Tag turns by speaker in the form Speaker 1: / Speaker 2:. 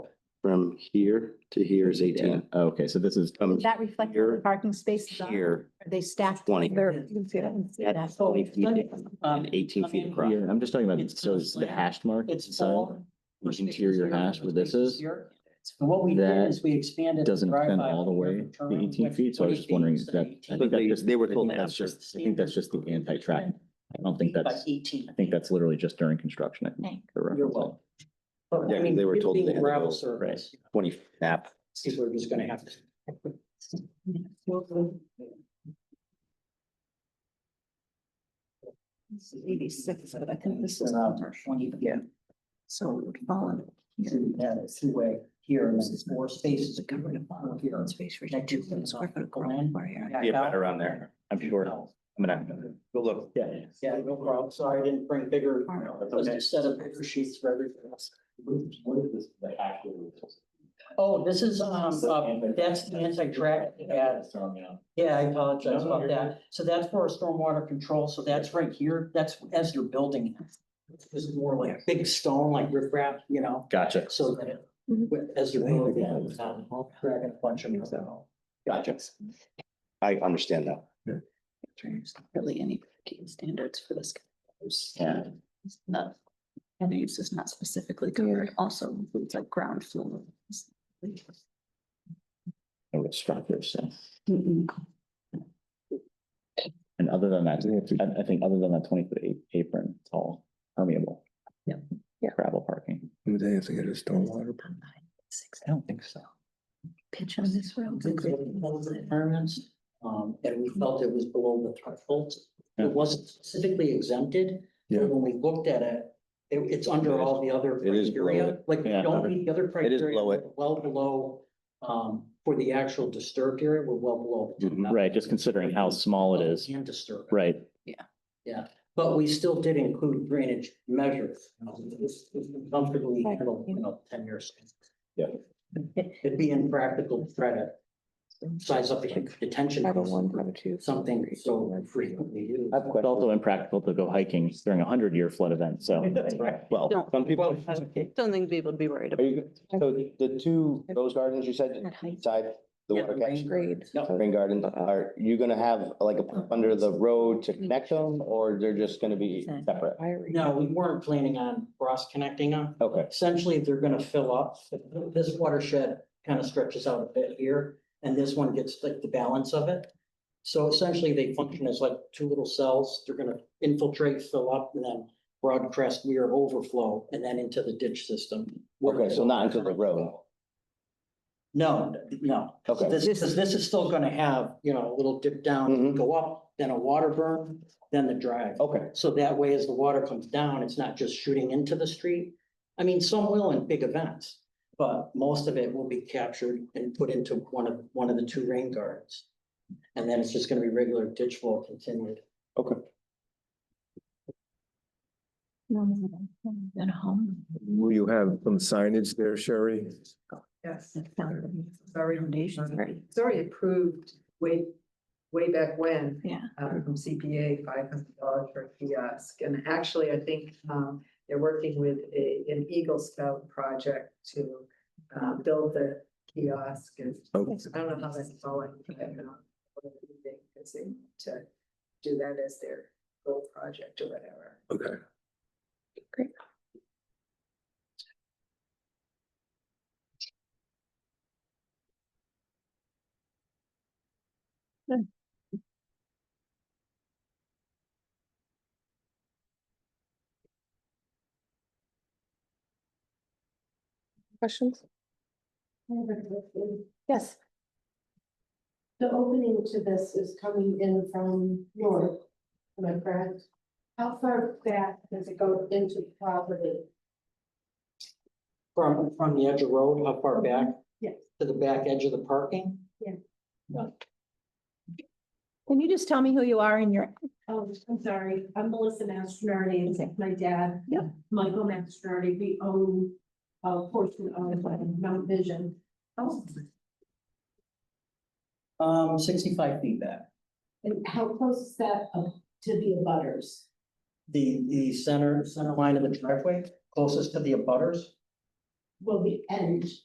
Speaker 1: From here to here is eighteen.
Speaker 2: Okay, so this is,
Speaker 1: From
Speaker 3: That reflects the
Speaker 1: here
Speaker 3: parking spaces on, are
Speaker 1: here,
Speaker 3: they stacked?
Speaker 1: 20.
Speaker 3: They're-
Speaker 1: that's
Speaker 3: That's all
Speaker 1: twenty
Speaker 3: we've
Speaker 1: feet
Speaker 3: done.
Speaker 1: in and eighteen feet
Speaker 4: Um,
Speaker 1: across.
Speaker 2: yeah, I'm just talking about,
Speaker 4: It's
Speaker 2: so it's the
Speaker 4: mostly-
Speaker 2: hashed mark.
Speaker 4: It's
Speaker 2: inside,
Speaker 4: all.
Speaker 2: the Interior hash where this is,
Speaker 4: And what we did
Speaker 2: That
Speaker 4: is we expanded. the
Speaker 2: doesn't extend
Speaker 4: drive-by
Speaker 2: all the way
Speaker 4: curve
Speaker 2: to
Speaker 4: term
Speaker 2: 18
Speaker 4: with
Speaker 2: feet, so I was
Speaker 4: 20
Speaker 2: just wondering
Speaker 4: feet
Speaker 2: if that-
Speaker 4: instead of
Speaker 2: I
Speaker 1: But
Speaker 2: think that
Speaker 1: they,
Speaker 2: just-
Speaker 1: they were
Speaker 2: I
Speaker 1: told
Speaker 2: think
Speaker 1: that's
Speaker 2: that's
Speaker 1: just,
Speaker 2: just- I think that's just the anti-track. I don't think
Speaker 4: By
Speaker 2: that's,
Speaker 4: Eighteen.
Speaker 2: I think that's literally just during construction. I think. they're
Speaker 4: You're
Speaker 2: referencing.
Speaker 4: welcome. But,
Speaker 1: Yeah,
Speaker 4: I
Speaker 1: 'cause
Speaker 4: mean,
Speaker 1: they were
Speaker 4: it
Speaker 1: told
Speaker 4: being
Speaker 1: they had to
Speaker 4: gravel
Speaker 1: go-
Speaker 4: surface,
Speaker 1: twenty nap.
Speaker 4: People are just gonna have to.
Speaker 3: Eighty-six, but I think this is.
Speaker 4: Around Twenty.
Speaker 3: Yeah. So it would fall in.
Speaker 4: Two, yeah, it's two-way here and then four spaces.
Speaker 3: To cover the bottom
Speaker 4: Here.
Speaker 3: here. Space for
Speaker 4: Next
Speaker 3: two
Speaker 4: to it.
Speaker 3: square foot of
Speaker 4: Go
Speaker 3: ground
Speaker 4: in.
Speaker 3: floor area.
Speaker 4: back
Speaker 1: Yeah,
Speaker 4: out,
Speaker 1: around there.
Speaker 4: and
Speaker 2: I'm
Speaker 4: then
Speaker 2: sure,
Speaker 4: out.
Speaker 2: I'm gonna,
Speaker 1: Go look.
Speaker 2: yeah, yeah.
Speaker 4: Yeah, no problem. Sorry, I didn't bring bigger,
Speaker 3: All right.
Speaker 4: those are set of paper sheets for everything else. Oh, this is, um, uh, that's the anti-track ad. Yeah, I apologize about that. So that's for stormwater control. So that's right here. That's as you're building. it. This is more like big stone, like riprap, you know,
Speaker 2: Gotcha.
Speaker 4: so that it,
Speaker 3: Mhm.
Speaker 4: with- as you're building. it, it's not Dragging a bunch of these out.
Speaker 1: Gotcha. I understand that.
Speaker 3: There's not Really any key standards for this.
Speaker 2: Yeah.
Speaker 3: No. And it's just not specifically covered, also includes like ground floor.
Speaker 2: No real structures, so.
Speaker 3: Mm-mm.
Speaker 2: And other than that, I, I think other than that twenty foot a- apron, it's all permeable.
Speaker 3: Yeah. Yeah.
Speaker 2: Gravel parking.
Speaker 5: Would they have to get a stormwater?
Speaker 3: About nine, six,
Speaker 2: I don't think so.
Speaker 3: Pitch on this road.
Speaker 4: Things like those Requirements, um, and we felt it was below the threshold.
Speaker 2: Yeah.
Speaker 4: It wasn't specifically exempted,
Speaker 5: Yeah.
Speaker 4: but when we looked at it, it- it's under all the other
Speaker 1: It is below
Speaker 4: criteria. Like, we
Speaker 2: Yeah.
Speaker 4: don't meet the other criteria.
Speaker 1: below it.
Speaker 4: We're Well below, um, for the actual disturbed area, we're well below.
Speaker 1: Mhm.
Speaker 2: Right, just considering how small it is,
Speaker 4: And disturbed.
Speaker 2: right?
Speaker 4: But we still did include drainage measures. you know, This this is comfortably handled, you know, ten years.
Speaker 2: Yeah.
Speaker 4: It'd be impractical to try to size up the detention. Something so frequently used.
Speaker 2: It's also impractical to go hiking during a hundred year flood event, so. Well,
Speaker 6: Don't,
Speaker 1: Some people,
Speaker 6: don't think people would be worried
Speaker 1: are
Speaker 6: about.
Speaker 1: you, so the two, those gardens you said inside the
Speaker 4: Yeah,
Speaker 1: water
Speaker 4: rain
Speaker 1: catch?
Speaker 4: garden. No,
Speaker 1: Rain garden, are you gonna have like a pump under the road to connect them or they're just gonna be separate?
Speaker 4: no, we weren't planning on cross connecting them.
Speaker 1: Okay,
Speaker 4: Essentially, they're gonna fill up. This watershed kind of stretches out a bit here, and this one gets like the balance of it. So essentially, they function as like two little cells. They're gonna infiltrate, fill up, and then broadcast weir overflow, and then into the ditch system.
Speaker 1: okay, so not into the road.
Speaker 4: No, no.
Speaker 1: Okay.
Speaker 4: This is, this is still gonna have, you know, a little dip down,
Speaker 1: Mhm.
Speaker 4: go up, then a water burn, then the drive.
Speaker 1: Okay,
Speaker 4: So that way, as the water comes down, it's not just shooting into the street. I mean, some will in big events, but most of it will be captured and put into one of, one of the two rain gardens. And then it's just gonna be regular ditch flow continued.
Speaker 3: Then home.
Speaker 5: Will you have some signage there, Sherry?
Speaker 7: Yes,
Speaker 3: Sorry. Foundations, right?
Speaker 7: it's already approved way, way back when,
Speaker 3: Yeah.
Speaker 7: um, from CPA, five hundred dollars for a kiosk. And actually, I think, um, they're working with a, an Eagle Scout project to, uh, build the kiosk and
Speaker 5: Oh,
Speaker 7: I don't know how that's going. but, um, what do you think? Is it To do that as their goal project or whatever.
Speaker 5: okay.
Speaker 6: Questions?
Speaker 3: Yes.
Speaker 8: The opening to this is coming in from north, am I correct? How far back does it go into the property?
Speaker 4: From, from the edge of road, how far back?
Speaker 8: Yes.
Speaker 4: To the back edge of the parking?
Speaker 3: Can you just tell me who you are and your,
Speaker 8: Oh, I'm sorry, I'm Melissa Mastronardi, and
Speaker 3: Okay.
Speaker 8: my dad.
Speaker 3: Yep.
Speaker 8: Michael Mastronardi, we own a portion of Mount Vision.
Speaker 3: Oh.
Speaker 4: Um, sixty-five feet back.
Speaker 8: And how close is that up to the abutters?
Speaker 4: The, the center, center line of the driveway, closest to the abutters.
Speaker 8: Well, the end